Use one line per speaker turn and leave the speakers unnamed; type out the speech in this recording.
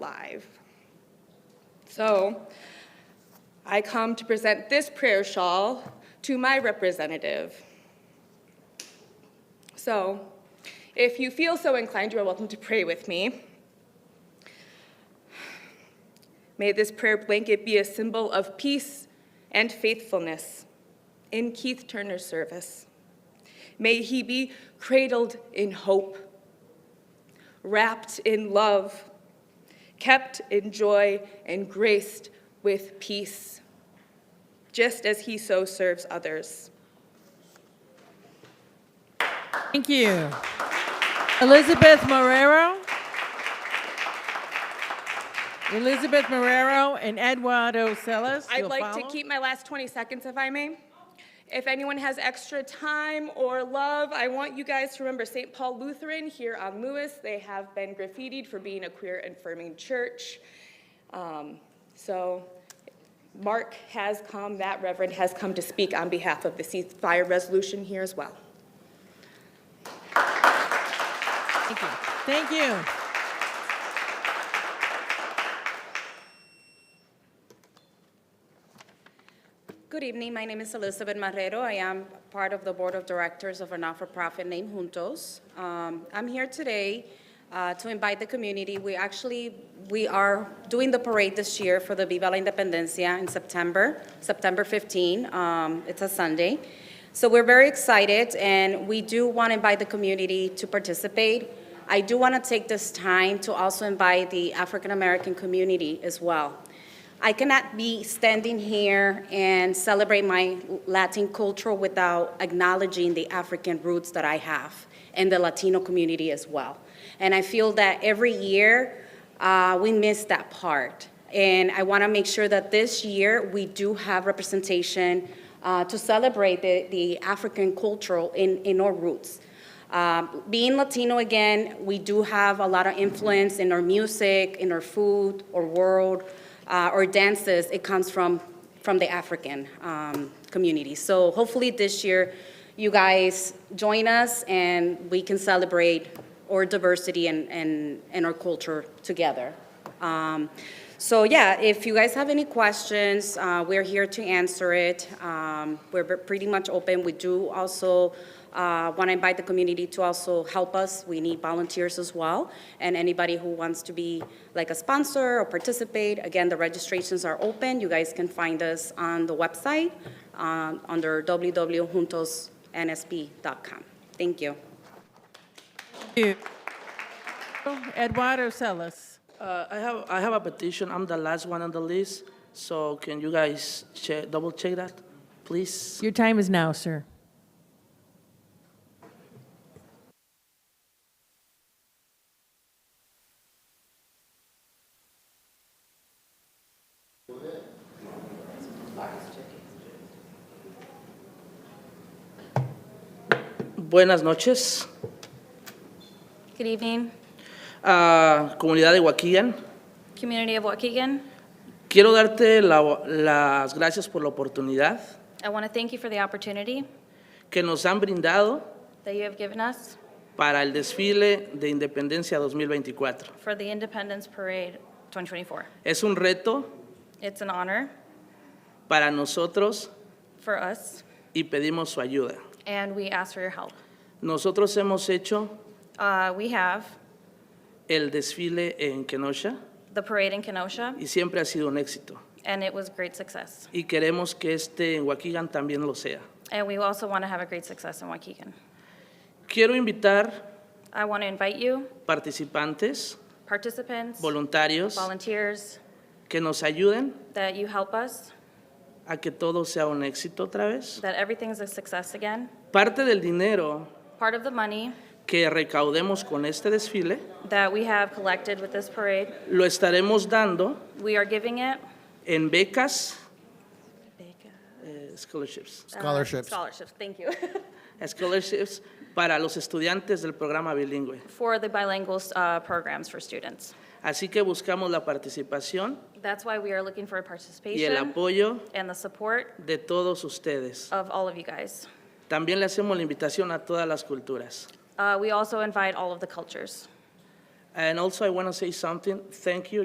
live. So I come to present this prayer shawl to my representative. So if you feel so inclined, you are welcome to pray with me. May this prayer blanket be a symbol of peace and faithfulness in Keith Turner's service. May he be cradled in hope, wrapped in love, kept in joy, and graced with peace, just as he so serves others.
Thank you. Elizabeth Marrero. Elizabeth Marrero and Eduardo Celis.
I'd
You'll
like to
follow?
keep my last 20 seconds, if I may. If anyone has extra time or love, I want you guys to remember St. Paul Lutheran here on Lewis. They have been graffitied for being a queer affirming church. Um, So Mark has come, that reverend has come to speak on behalf of the ceasefire resolution here as well.
Thank you. Thank you.
Good evening. My name is Elizabeth Marrero. I am part of the Board of Directors of a not-for-profit named Juntos. Um, I'm here today uh, to invite the community. We actually, we are doing the parade this year for the Viva la Independencia in September, September 15. Um, It's a Sunday. So we're very excited, and we do want to invite the community to participate. I do want to take this time to also invite the African-American community as well. I cannot be standing here and celebrate my Latin culture without acknowledging the African roots that I have and the Latino community as well. And I feel that every year, uh, we miss that part. And I want to make sure that this year, we do have representation uh, to celebrate the the African culture in in our roots. Um, Being Latino again, we do have a lot of influence in our music, in our food, our world, uh, our dances. It comes from, from the African um, community. So hopefully this year, you guys join us and we can celebrate our diversity and, and, and our culture together. Um, So yeah, if you guys have any questions, uh, we're here to answer it. Um, We're ve- pretty much open. We do also want to invite the community to also help us. We need volunteers as well, and anybody who wants to be like a sponsor or participate. Again, the registrations are open. You guys can find us on the website um, under www.juntosnsp.com. Thank you.
Thank you. Eduardo Celis.
Uh, I have, I have a petition, I'm the last one on the list, so can you guys che double check that, please?
Your time is now, sir.
Buenas noches,
Good evening,
ah, comunidad de Waukegan.
community of Waukegan.
Quiero darte la- las gracias por la oportunidad
I want to thank you for the opportunity
que nos han brindado
that you have given us
para el desfile de Independencia 2024.
for the Independence Parade 2024.
Es un reto
It's an honor
para nosotros
for us,
y pedimos su ayuda.
and we ask for your help.
Nosotros hemos hecho
Uh, We have
el desfile en Kenosha
the parade in Kenosha,
y siempre ha sido un éxito.
and it was great success.
y queremos que este en Waukegan también lo sea.
And we also want to have a great success in Waukegan.
Quiero invitar
I want to invite you,
participantes,
participants,
voluntarios,
volunteers,
que nos ayuden
that you help us,
a que todo sea un éxito otra vez.
that everything's a success again.
Parte del dinero
Part of the money
que recaudemos con este desfile
that we have collected with this parade,
lo estaremos dando
we are giving it
en becas, eh, scholarships,
Scholarships.
Um, Scholarships, thank you.
scholarships para los estudiantes del programa bilingüe.
For the bilingual uh, programs for students.
Así que buscamos la participación
That's why we are looking for
y el
participation
apoyo
and the support
de todos ustedes.
of all of you guys.
También le hacemos la invitación a todas las culturas.
Uh, We also invite all of the cultures.
And also, I want to say something. Thank you.